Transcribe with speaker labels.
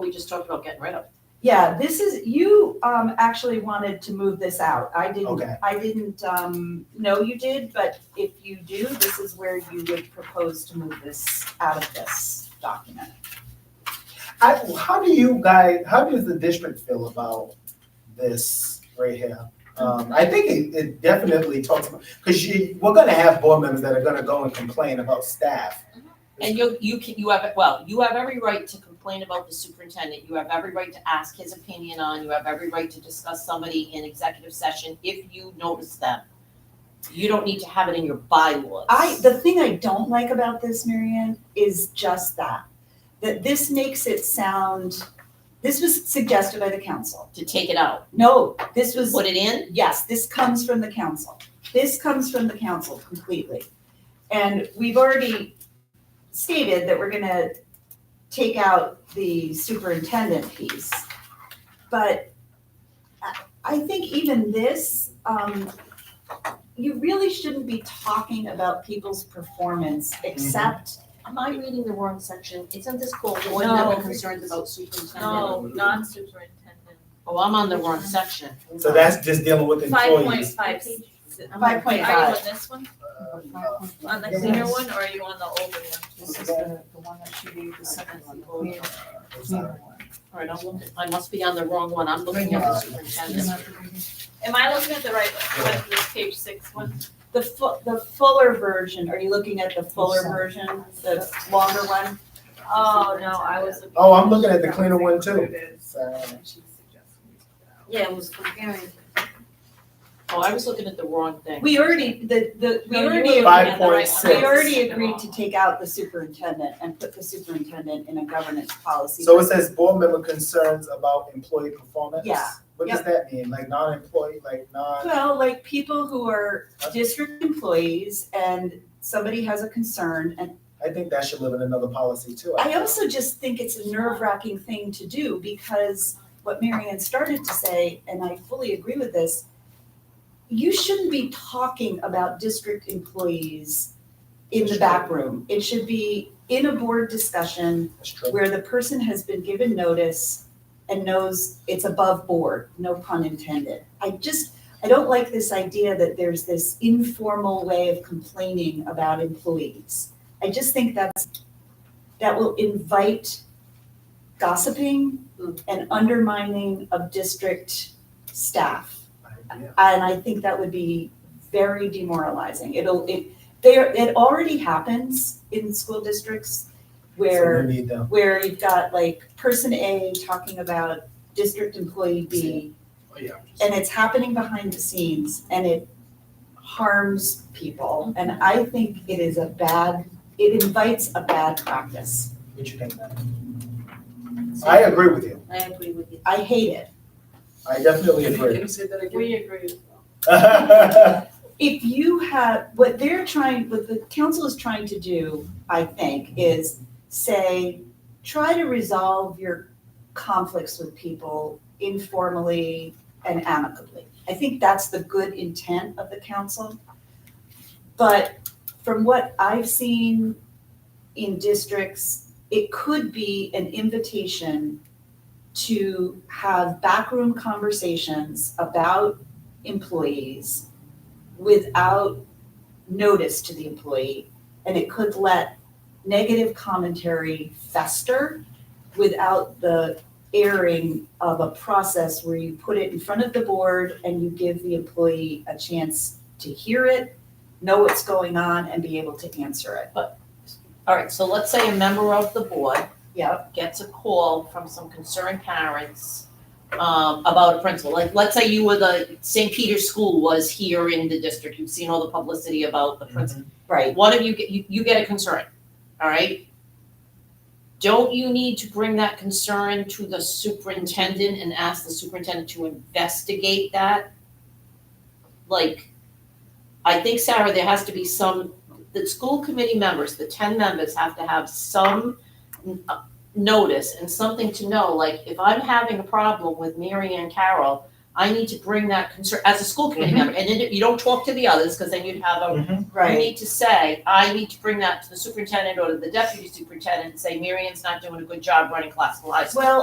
Speaker 1: we just talked about getting rid of.
Speaker 2: Yeah, this is, you, um, actually wanted to move this out. I
Speaker 3: Okay.
Speaker 2: didn't, I didn't, um, know you did, but if you do, this is where you would propose to move this out of this document.
Speaker 3: I, how do you guys, how does the district feel about this right here? Um, I think it, it definitely talks about, because you, we're gonna have board members that are gonna go and complain about staff.
Speaker 1: And you, you can, you have, well, you have every right to complain about the superintendent, you have every right to ask his opinion on, you have every right to discuss somebody in executive session if you notice them. You don't need to have it in your bylaws.
Speaker 2: I, the thing I don't like about this, Marianne, is just that, that this makes it sound, this was suggested by the council.
Speaker 1: To take it out,
Speaker 2: No, this was
Speaker 1: put it in,
Speaker 2: yes, this comes from the council. This comes from the council completely. And we've already stated that we're gonna take out the superintendent piece. But I- I think even this, um, you really shouldn't be talking about people's performance except,
Speaker 1: am I reading the wrong section? Isn't this called the
Speaker 4: No.
Speaker 1: member concerns about superintendent?
Speaker 4: No, non-superintendent.
Speaker 1: Oh, I'm on the wrong section.
Speaker 3: So that's just dealing with
Speaker 4: Five point
Speaker 3: employees.
Speaker 4: five.
Speaker 2: Five point
Speaker 4: Are you
Speaker 2: five.
Speaker 4: on this one, on the
Speaker 3: Yes.
Speaker 4: cleaner one, or are you on the older
Speaker 5: This is the, the one that she gave, the second one.
Speaker 1: All right, I'm looking, I must be on the wrong one, I'm looking at the superintendent.
Speaker 4: one? Am I looking at the right one, What, this page six one?
Speaker 2: the fu- the fuller version, are you looking at the fuller version, the longer one?
Speaker 4: Oh, no, I was looking.
Speaker 3: Oh, I'm looking at the cleaner one too. So,
Speaker 5: Yeah, it was comparing.
Speaker 1: Oh, I was looking at the wrong thing.
Speaker 2: We already, the, the, we
Speaker 4: No, you were
Speaker 2: already.
Speaker 4: looking
Speaker 3: at the right one.
Speaker 2: We already
Speaker 4: Six.
Speaker 2: agreed to take out the superintendent and put the superintendent in a governance policy.
Speaker 3: so it says board member concerns about employee performance?
Speaker 2: Yeah.
Speaker 3: What does that mean? Like non-employee, like non?
Speaker 2: Well, like people who are district employees and somebody has a concern and
Speaker 3: I think that should live in another policy too.
Speaker 2: I also just think it's a nerve wracking thing to do because what Marianne started to say, and I fully agree with this, you shouldn't be talking about district employees in the back room. It should be in a board discussion
Speaker 3: That's true.
Speaker 2: where the person has been given notice and knows it's above board, no pun intended. I just, I don't like this idea that there's this informal way of complaining about employees. I just think that's, that will invite gossiping and undermining of district staff.
Speaker 3: Yeah.
Speaker 2: And I think that would be very demoralizing. It'll, it, there, it already happens in school districts where
Speaker 3: So we need them.
Speaker 2: where you've got like person A talking about district employee B,
Speaker 3: Oh,
Speaker 2: and it's happening behind the scenes and it harms people. And I think it is a bad, it invites a bad practice.
Speaker 3: What you think? Matt? I agree with you.
Speaker 5: I agree with you.
Speaker 2: I hate it.
Speaker 3: I definitely agree.
Speaker 5: say that
Speaker 4: We agree.
Speaker 2: If you have, what they're trying, what the council is trying to do, I think, is say, try to resolve your conflicts with people informally and amicably. I think that's the good intent of the council. But from what I've seen in districts, it could be an invitation to have backroom conversations about employees without notice to the employee. And it could let negative commentary fester without the airing of a process where you put it in front of the board and you give the employee a chance to hear it, know what's going on, and be able to answer it.
Speaker 1: All right, so let's say a member of the board
Speaker 2: Yep,
Speaker 1: gets a call from some concerned parents um, about a principal. Like, let's say you were the, St. Peter's School was here in the district, you've seen all the publicity about the principal.
Speaker 2: right.
Speaker 1: One of you, get- you, you get a concern, all right? Don't you need to bring that concern to the superintendent and ask the superintendent to investigate that? Like, I think, Sarah, there has to be some, the school committee members, the ten members have to have some n- uh, notice and something to know, like, if I'm having a problem with Mary Ann Carroll, I need to bring that concern, as a school committee
Speaker 3: Mhm.
Speaker 1: member, and then you don't talk to the others, because then you'd have a
Speaker 3: Mhm.
Speaker 1: you
Speaker 2: Right,
Speaker 1: need to say, I need to bring that to the superintendent or to the deputy superintendent and say, Marion's not doing a good job running classical high school.
Speaker 2: well,